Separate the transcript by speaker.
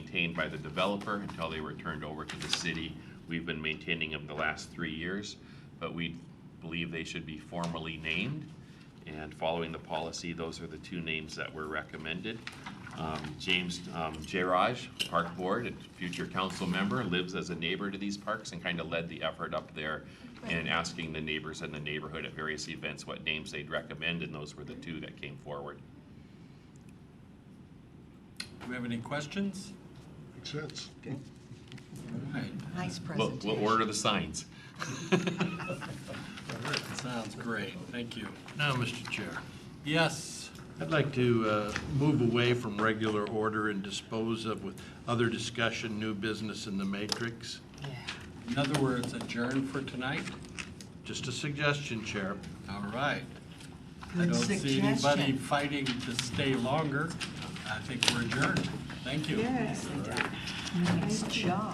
Speaker 1: maintained by the developer until they were turned over to the city. We've been maintaining them the last three years, but we believe they should be formally named. And following the policy, those are the two names that were recommended. Um, James um, Jairaj, Park Board and future council member, lives as a neighbor to these parks and kind of led the effort up there in asking the neighbors in the neighborhood at various events what names they'd recommend, and those were the two that came forward.
Speaker 2: Do we have any questions?
Speaker 3: Makes sense.
Speaker 2: All right,
Speaker 4: Nice
Speaker 1: We'll,
Speaker 4: presentation.
Speaker 1: we'll order the signs.
Speaker 2: that sounds great, thank you.
Speaker 5: Now, Mr. Chair,
Speaker 2: Yes,
Speaker 5: I'd like to uh, move away from regular order and dispose of with other discussion, new business in the matrix.
Speaker 2: in other words, adjourn for tonight?
Speaker 5: Just a suggestion, Chair.
Speaker 2: All right. I
Speaker 4: Good
Speaker 2: don't see anybody
Speaker 4: suggestion.
Speaker 2: fighting to stay longer. I think we're adjourned. Thank you.
Speaker 4: Nice job.